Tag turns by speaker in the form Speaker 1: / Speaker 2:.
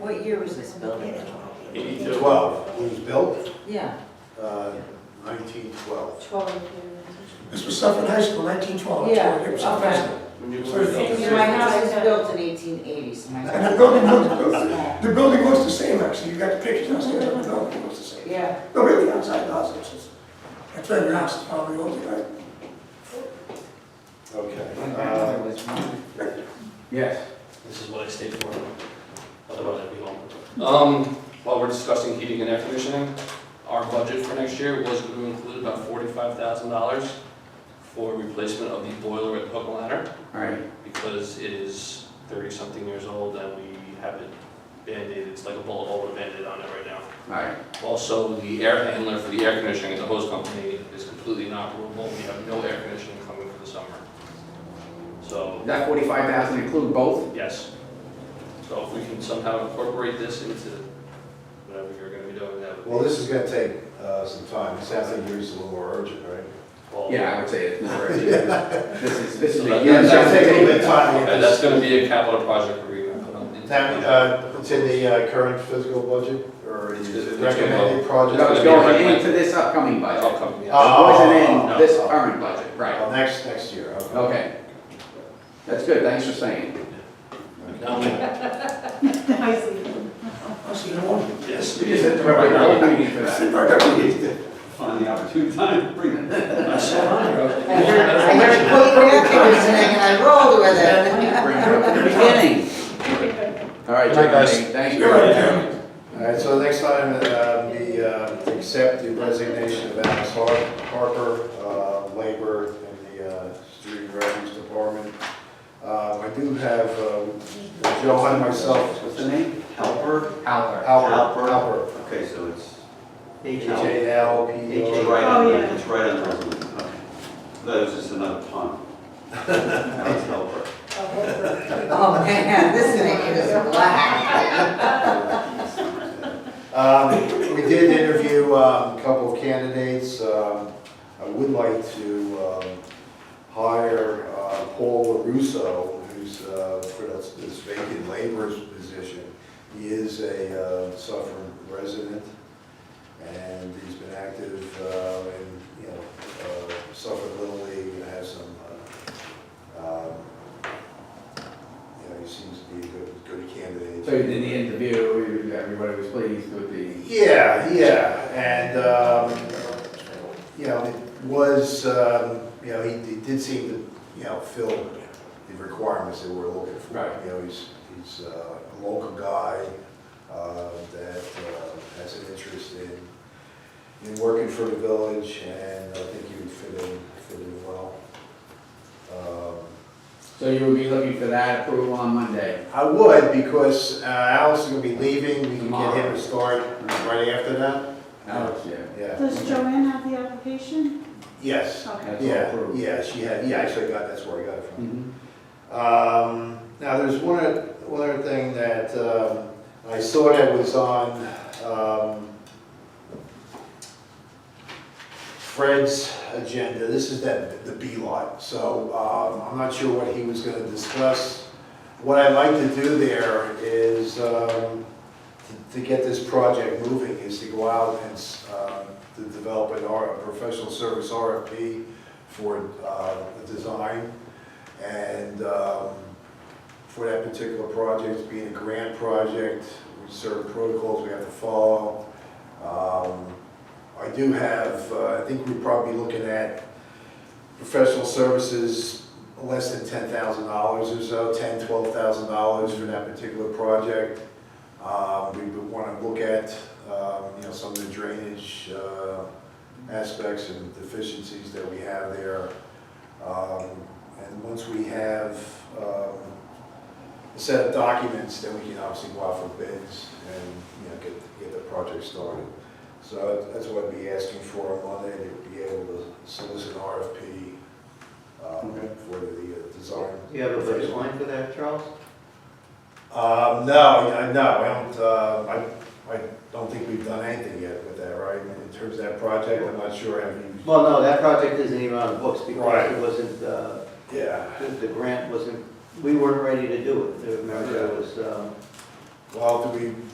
Speaker 1: What year was this building?
Speaker 2: 82.
Speaker 3: 12, it was built
Speaker 1: Yeah.
Speaker 3: uh, 1912.
Speaker 4: 12
Speaker 5: This was Suffolk High School, 1912,
Speaker 1: Yeah,
Speaker 5: It was Suffolk High School.
Speaker 2: When you
Speaker 5: So
Speaker 2: were-
Speaker 5: it's-
Speaker 1: My house was built in eighteen eighty, so my.
Speaker 5: And the building looked, the building looks the same, actually, you got the pictures downstairs, the building looks the same.
Speaker 1: Yeah,
Speaker 5: No, really, outside the house, it's, just- that's where your house is probably older, right?
Speaker 3: Okay.
Speaker 1: my grandmother
Speaker 3: uh,
Speaker 1: was one.
Speaker 2: Yes.
Speaker 6: This is what I stayed for, otherwise I'd be home. Um, while we're discussing heating and air conditioning, our budget for next year was going to include about forty-five thousand dollars for replacement of the boiler at Hook and Ladder,
Speaker 2: All right.
Speaker 6: because it is thirty-something years old and we have it band-aided, it's like a bullet hole with a band-aid on it right now.
Speaker 2: All right.
Speaker 6: Also, the air handler for the air conditioning at the hose company is completely inoperable, we have no air conditioning coming for the summer. So,
Speaker 2: That forty-five thousand include both?
Speaker 6: Yes. So if we can somehow incorporate this into whatever you're gonna be doing, that
Speaker 3: Well,
Speaker 6: would be.
Speaker 3: this is going to take uh, some time. It sounds like yours is a little more urgent, right?
Speaker 6: Well,
Speaker 2: Yeah, I would say it's more. This is, this is.
Speaker 6: So that-
Speaker 2: yeah,
Speaker 3: It's gonna
Speaker 2: that's-
Speaker 3: take a little bit of time.
Speaker 6: Okay,
Speaker 3: to
Speaker 6: that's
Speaker 3: get
Speaker 6: gonna be a capital project we're gonna put on.
Speaker 3: this- That, uh, It's in the uh, current fiscal budget or is
Speaker 6: It's
Speaker 3: it
Speaker 6: gonna go-
Speaker 3: recommended project?
Speaker 2: No, it's going into this upcoming budget. It
Speaker 6: Outcome, yeah.
Speaker 3: Uh,
Speaker 2: wasn't in
Speaker 3: no.
Speaker 2: this current budget, right?
Speaker 3: Oh, Next, next year, okay.
Speaker 2: Okay. That's good, thanks for saying.
Speaker 6: Now
Speaker 3: uh,
Speaker 6: we-
Speaker 5: I see, no one,
Speaker 6: Yes.
Speaker 2: You just hit the right note for that.
Speaker 3: Okay.
Speaker 2: Find the opportune time to bring it.
Speaker 6: I saw on there, I was like,
Speaker 1: I heard, I heard quote air conditioning and I rolled with it.
Speaker 2: Bring it up to the beginning. All right,
Speaker 3: Good night, guys.
Speaker 2: Jeremy, thank you.
Speaker 5: you're right, Jeremy.
Speaker 3: All right, so the next item, uh, we uh, accept the resignation of Alice Har- Harper, uh, labor in the uh, street refuse department. Uh, I do have um, Joe and myself.
Speaker 7: What's the name? Helper?
Speaker 2: Albert.
Speaker 3: Halper. Halper.
Speaker 7: Okay, so it's.
Speaker 3: H A L P
Speaker 7: It's
Speaker 3: E R.
Speaker 7: right
Speaker 4: Oh,
Speaker 7: on,
Speaker 4: yeah.
Speaker 7: it's right on the resolution, okay. That was just another pun. That was helper.
Speaker 1: Oh, man, this thing is black.
Speaker 3: Um, We did interview um, a couple of candidates. Um, I would like to um, hire uh, Paul LaRusso, who's uh, for this this vacant labor's position. He is a uh, Suffern resident, and he's been active uh, in, you know, uh, Suffern Little League, and has some, uh, um, you know, he seems to be a good, good candidate.
Speaker 2: So you did the interview, everybody was pleased with the,
Speaker 3: Yeah, yeah, and, um, you know, it was, um, you know, he, he did seem to, you know, fill the requirements that we're looking for.
Speaker 2: Right.
Speaker 3: You know, he's, he's uh, a local guy, uh, that, uh, has an interest in, in working for the village, and I think he would fit in, fit in well. Um,
Speaker 2: so you would be looking for that approval on Monday?
Speaker 3: I would, because uh, Alice is gonna be leaving, we can get him
Speaker 2: Tomorrow.
Speaker 3: to start right after that,
Speaker 2: Alex, yeah.
Speaker 3: yeah.
Speaker 4: Does Joanne have the application?
Speaker 3: Yes.
Speaker 4: Okay.
Speaker 2: That's all
Speaker 3: Yeah,
Speaker 2: approved.
Speaker 3: yeah, she had, yeah, actually, I got, that's where I got it from.
Speaker 2: Mhm.
Speaker 3: Um, now, there's one, oth- one other thing that, um, I saw that was on, um, Fred's agenda, this is that, the B lot, so, um, I'm not sure what he was gonna discuss. What I'd like to do there is, um, to- to get this project moving, is to go out and, s- um, to develop an R, a professional service RFP for, uh, the design. And um, for that particular project, being a grant project, we certain protocols we have to follow. Um, I do have, uh, I think we're probably looking at professional services, less than ten thousand dollars or so, ten, twelve thousand dollars for that particular project. Um, We would want to look at, um, you know, some of the drainage uh, aspects and deficiencies that we have there. Um, and once we have um, a set of documents, then we can obviously go out for bids and, you know, get, get the project started. So that's what I'd be asking for on Monday, to be able to solicit an RFP um,
Speaker 7: Okay.
Speaker 3: for the uh, design.
Speaker 7: You have a baseline for that, Charles?
Speaker 3: Um, no, I- no, I don't, uh, I, I don't think we've done anything yet with that, right? In terms of that project, I'm not sure, I mean,
Speaker 7: Well, no, that project isn't even on the books
Speaker 3: Right.
Speaker 7: because it wasn't, uh,
Speaker 3: yeah.
Speaker 7: the the grant wasn't, we weren't ready to do it. Remember, there was, um,
Speaker 3: Well, do we